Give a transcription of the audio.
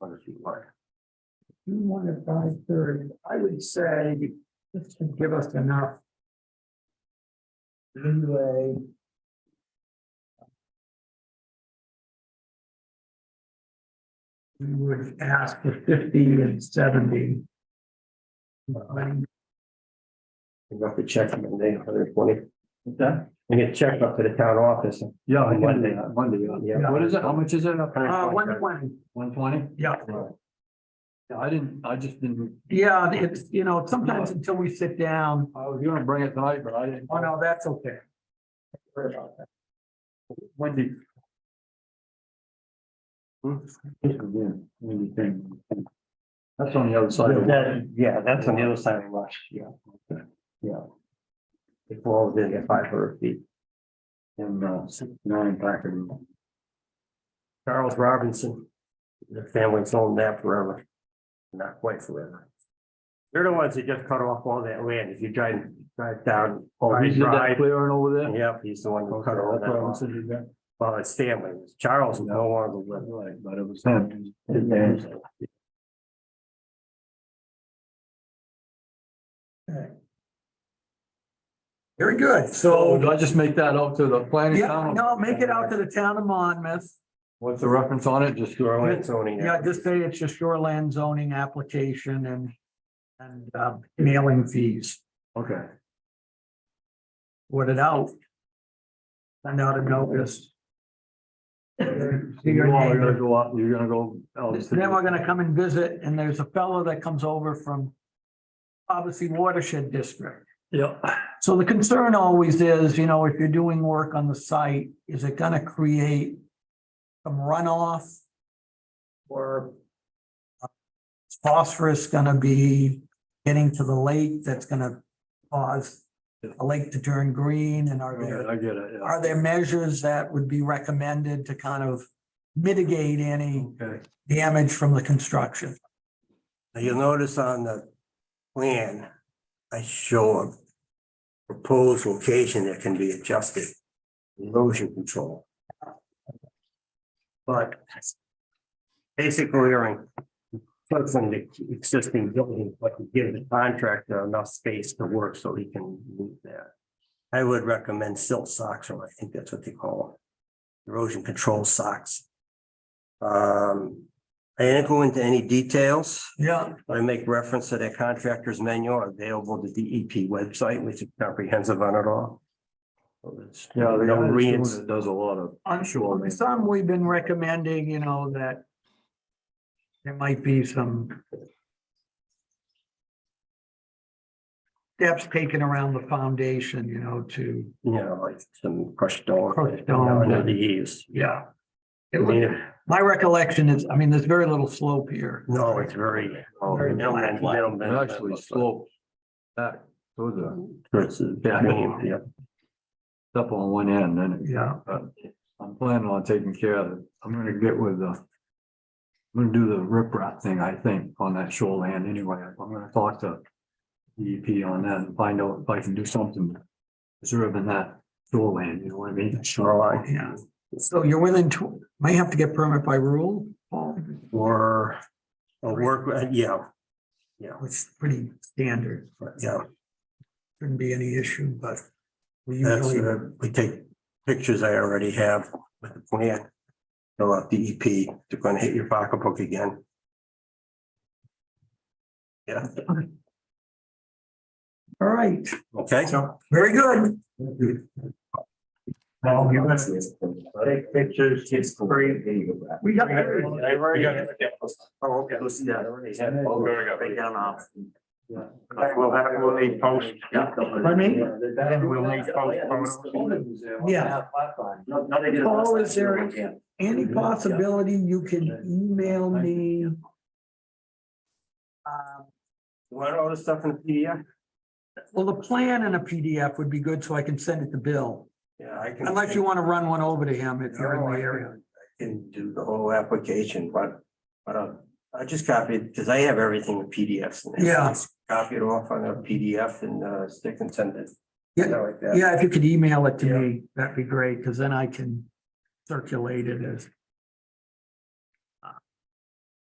Hundred feet wide. You want it by thirty, I would say, this should give us enough. Leeway. We would ask for fifty and seventy. Um, You got the check from the day, hundred twenty. Okay. And get checked up to the town office. Yeah, I can do Monday. that, Monday, yeah. Yeah. What is it? How much is it? Uh, one twenty, One twenty? yeah, Yeah, I didn't, I just didn't, yeah, it's, you know, sometimes until we sit down, I was gonna bring it tonight, but I didn't. oh no, that's okay. Don't worry about that. Wendy. That's on the other side. of it. That, yeah, that's on the other side of Rush, yeah. Yeah. It falls in at five hundred feet. And uh, nine Packard. Oh, Charles Robinson. The family's owned that forever. Not quite forever. They're the ones that just cut off all that land. If you drive, drive down. Oh, he Pride did that Drive, clearing over there? Yep, he's the one who Okay, cut all that's that what I'm off. saying, yeah. Well, it's family. Charles is no longer with. Right, but it was him. his dad's- Very good, So so, do I just make that out to the planning? yeah, town? no, make it out to the town of Monmouth. What's the reference on it? Just throw it. It's owning it. Yeah, just say it's a shoreland zoning application and, and, um, mailing fees, Okay. Word it out. Send out a notice. You See your all are gonna neighbor. go up, you're gonna go. out to- Then we're gonna come and visit, and there's a fellow that comes over from obviously watershed district. Yeah. So the concern always is, you know, if you're doing work on the site, is it gonna create some runoff? Or uh, is phosphorus gonna be getting to the lake that's gonna cause a lake to turn green and are there, Okay, I get it, yeah. are there measures that would be recommended to kind of mitigate any Okay. damage from the construction? Now, You'll notice on the plan, I show a proposed location that can be adjusted, erosion control. But basically, you're in front of the existing building, but you give the contractor enough space to work so he can move that. I would recommend silt socks, or I think that's what they call them, erosion control socks. Um, I didn't go into any details. Yeah, I make reference to that contractor's manual available at the DEP website, which is comprehensive on it all. So it's- Yeah, the No guy that's reins. doing it does a lot of. I'm Sure, sure. man. Some we've been recommending, you know, that there might be some steps taken around the foundation, you know, to, You know, like some crushed stone. Crushed you know, stone. Under the eaves. yeah. I It would- mean, My recollection is, I mean, there's very little slope here. no, it's very. oh, Very middleman, flat. middleman, It actually slopes back to the It's a bit- I mean, yeah. step on one end, then it Yeah, but Uh, I'm planning on taking care of it. I'm gonna get with the. I'm gonna do the riprap thing, I think, on that shoreline anyway. I'm gonna talk to DEP on that and find out if I can do something. Preserving that shoreline, you know what I mean? Shoreline yeah. So you're within, tw- may have to get permit by rule, Paul, or or work, uh, yeah, which is pretty standard. but, yeah. Shouldn't be any issue, but we That's, usually. uh, we take pictures I already have with the plan. Fill out E DEP, they're gonna hit your pocketbook again. Yeah, All right, okay. very good. Well, you must. Take pictures, it's great. We got. Oh, okay, let's see that already. Right down off. Yeah. We'll have, we'll need post. Pardon me? We'll need post. Yeah. Paul, is there any possibility you can email me? Um, Want all the stuff in the PDF? Well, the plan in a PDF would be good, so I can send it to Bill, Yeah, I can. unless you want to run one over to him if you're in the area. Oh, I Can do the whole application, but, but uh, I just copied, because I have everything in PDFs. and Yeah. everything. Copy it off on a PDF and uh, stick and send it. Yeah, Like that. Yeah, if you could email it to me, that'd be great, because then I can circulate it as